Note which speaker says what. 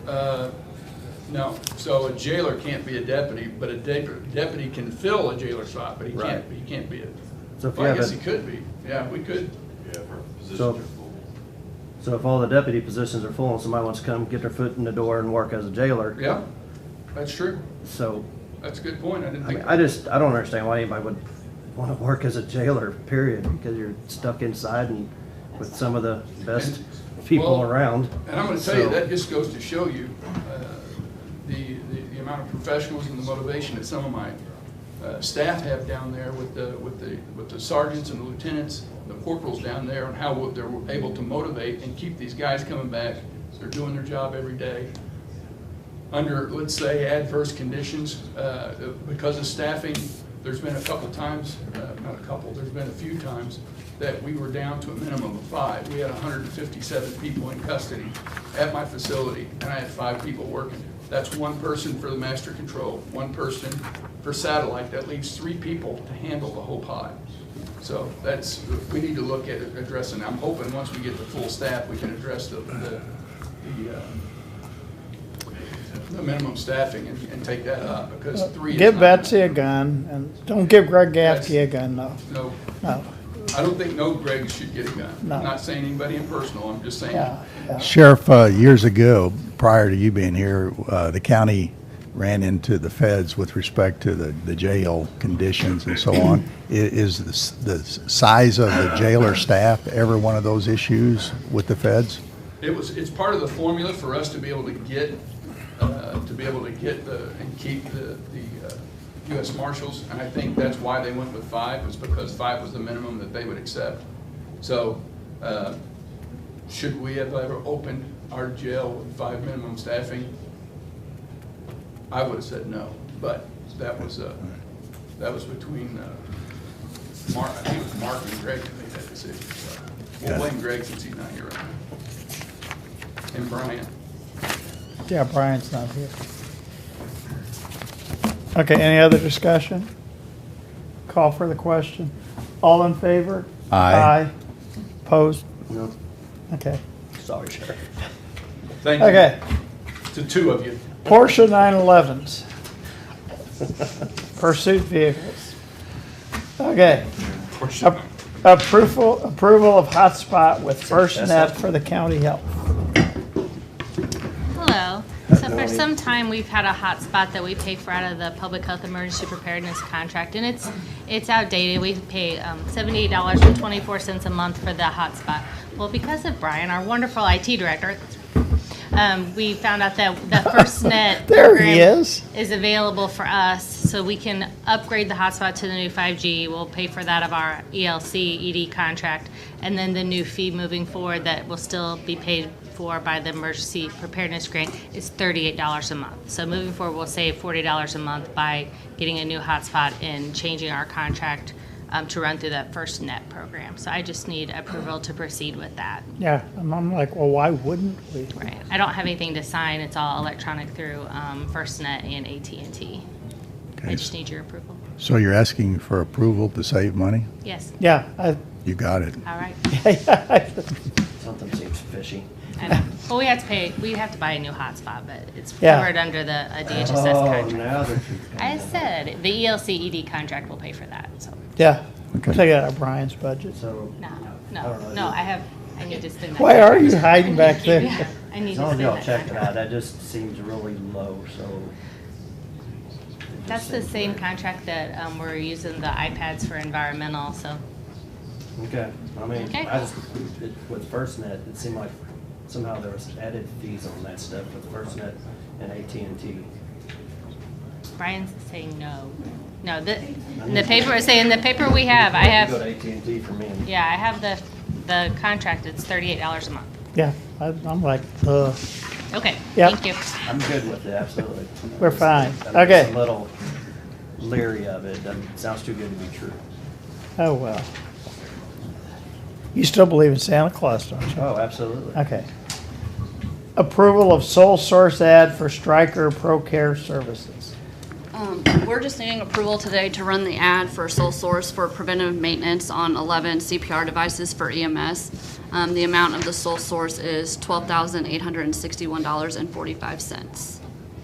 Speaker 1: Uh, No, so a jailer can't be a deputy, but a de- deputy can fill a jailer spot, but he can't,
Speaker 2: Right.
Speaker 1: he can't be a.
Speaker 3: So if you
Speaker 1: Well, I
Speaker 3: have
Speaker 1: guess
Speaker 3: a-
Speaker 1: he could be, yeah, we could,
Speaker 4: Yeah, if our positions
Speaker 3: So-
Speaker 4: are full.
Speaker 3: So if all the deputy positions are full and somebody wants to come get their foot in the door and work as a jailer,
Speaker 1: yeah, that's true,
Speaker 3: so,
Speaker 1: that's a good point, I didn't
Speaker 3: I mean,
Speaker 1: think.
Speaker 3: I just, I don't understand why anybody would wanna work as a jailer, period, because you're stuck inside and with some of the best people
Speaker 1: Well,
Speaker 3: around.
Speaker 1: And I'm gonna tell you,
Speaker 3: So-
Speaker 1: that just goes to show you, uh, the, the, the amount of professionals and the motivation that some of my, uh, staff have down there with the, with the, with the sergeants and the lieutenants, the corporals down there, and how they're able to motivate and keep these guys coming back. They're doing their job every day. under, let's say, adverse conditions, uh, because of staffing, there's been a couple times, uh, not a couple, there's been a few times that we were down to a minimum of five. We had 157 people in custody at my facility, and I had five people working. That's one person for the master control, one person for satellite. That leaves three people to handle the whole pod. So that's, we need to look at addressing, I'm hoping, once we get the full staff, we can address the, the, the, uh, the minimum staffing and, and take that up, because three is
Speaker 5: Give
Speaker 1: not-
Speaker 5: Betsy a gun, and don't give Greg Gaffey a gun, no,
Speaker 1: No,
Speaker 5: no,
Speaker 1: I don't think no Greg should get a gun. I'm
Speaker 5: No.
Speaker 1: not saying anybody in personal, I'm just saying,
Speaker 5: yeah, yeah.
Speaker 6: Sheriff, uh, years ago, prior to you being here, uh, the county ran into the feds with respect to the, the jail conditions and so on. I- Is the, s- the s- size of the jailer staff ever one of those issues with the feds?
Speaker 1: it was, it's part of the formula for us to be able to get, uh, to be able to get the, and keep the, the uh, US Marshals, and I think that's why they went with five, was because five was the minimum that they would accept. So, uh, should we have ever opened our jail with five minimum staffing? I would have said no, but that was, uh, that was between, uh, Mark, I think it was Mark and Greg that made that decision, so. We'll blame Greg since he's not here right now. And Brian.
Speaker 5: Yeah, Brian's not here. Okay, any other discussion? Call for the question. All in favor?
Speaker 6: Aye.
Speaker 5: Opposed?
Speaker 3: No,
Speaker 5: Okay,
Speaker 3: sorry, Sheriff.
Speaker 1: Thank you.
Speaker 5: okay.
Speaker 1: To two of you.
Speaker 5: Porsche 911s. Pursuit vehicles. Okay. Ap- Approval, approval of hotspot with FirstNet for the county health.
Speaker 7: Hello. So for some time, we've had a hot spot that we pay for out of the public health emergency preparedness contract, and it's, it's outdated. We pay um, $78.24 a month for the hot spot. Well, because of Brian, our wonderful IT director, um, we found out that the FirstNet.
Speaker 5: There he
Speaker 7: program
Speaker 5: is.
Speaker 7: Is available for us, so we can upgrade the hotspot to the new 5G. We'll pay for that of our E ELC ED contract, and then the new fee moving forward that will still be paid for by the emergency preparedness grant is $38 a month. So moving forward, we'll save $40 a month by getting a new hotspot and changing our contract um, to run through that first net program. So I just need approval to proceed with that.
Speaker 5: Yeah, and I'm like, well, why wouldn't we?
Speaker 7: Right. I don't have anything to sign. It's all electronic through um, FirstNet and AT&T. I
Speaker 6: Okay,
Speaker 7: just need your approval.
Speaker 6: So you're asking for approval to save money?
Speaker 7: Yes.
Speaker 5: Yeah, I,
Speaker 6: You got it.
Speaker 7: All right.
Speaker 3: Something seems fishy.
Speaker 7: I know. Well, we have to pay. We have to buy a new hotspot, but it's
Speaker 5: Yeah.
Speaker 7: covered under the uh, a DHSS
Speaker 3: Oh,
Speaker 7: contract.
Speaker 3: now that you
Speaker 7: I said the E ELC ED contract will pay for that. So
Speaker 5: yeah,
Speaker 6: Okay.
Speaker 5: take it out of Brian's budget.
Speaker 3: So,
Speaker 7: no,
Speaker 3: I don't
Speaker 7: no,
Speaker 3: know.
Speaker 7: no. I have. I need to spend that.
Speaker 5: Oh, Why are you hiding back
Speaker 7: Yeah,
Speaker 5: there?
Speaker 7: I need
Speaker 3: as
Speaker 7: to
Speaker 3: long as
Speaker 7: spend
Speaker 3: y'all
Speaker 7: that.
Speaker 3: check it
Speaker 7: contract.
Speaker 3: out, that just seems really low, so.
Speaker 7: That's the same contract that um, we're using the iPads for environmental. So
Speaker 3: Okay, I mean,
Speaker 7: Okay.
Speaker 3: I just, it- with FirstNet, it seemed like somehow there was added fees on that stuff with FirstNet and AT&T.
Speaker 7: Brian's saying no. No, the in the paper is saying the paper we have. I
Speaker 3: Go to
Speaker 7: have.
Speaker 3: AT&T for me and
Speaker 7: Yeah, I have the the contract. It's thirty eight dollars a month.
Speaker 5: Yeah, I- I'm like, uh,
Speaker 7: Okay.
Speaker 5: Yep.
Speaker 7: Thank you.
Speaker 3: I'm good with it, absolutely.
Speaker 5: We're fine.
Speaker 3: I'm just
Speaker 5: Okay.
Speaker 3: A little leery of it, doesn't, sounds too good to be true.
Speaker 5: oh, well. You still believe in Santa Claus, don't you?
Speaker 3: Oh, absolutely.
Speaker 5: Okay. Approval of sole source ad for Stryker Pro Care Services.
Speaker 8: Um,
Speaker 2: Um, We're just needing approval today to run the ad for sole source for preventive maintenance on 11 CPR devices for E EMS. Um, The amount of the sole source is $12,861.45.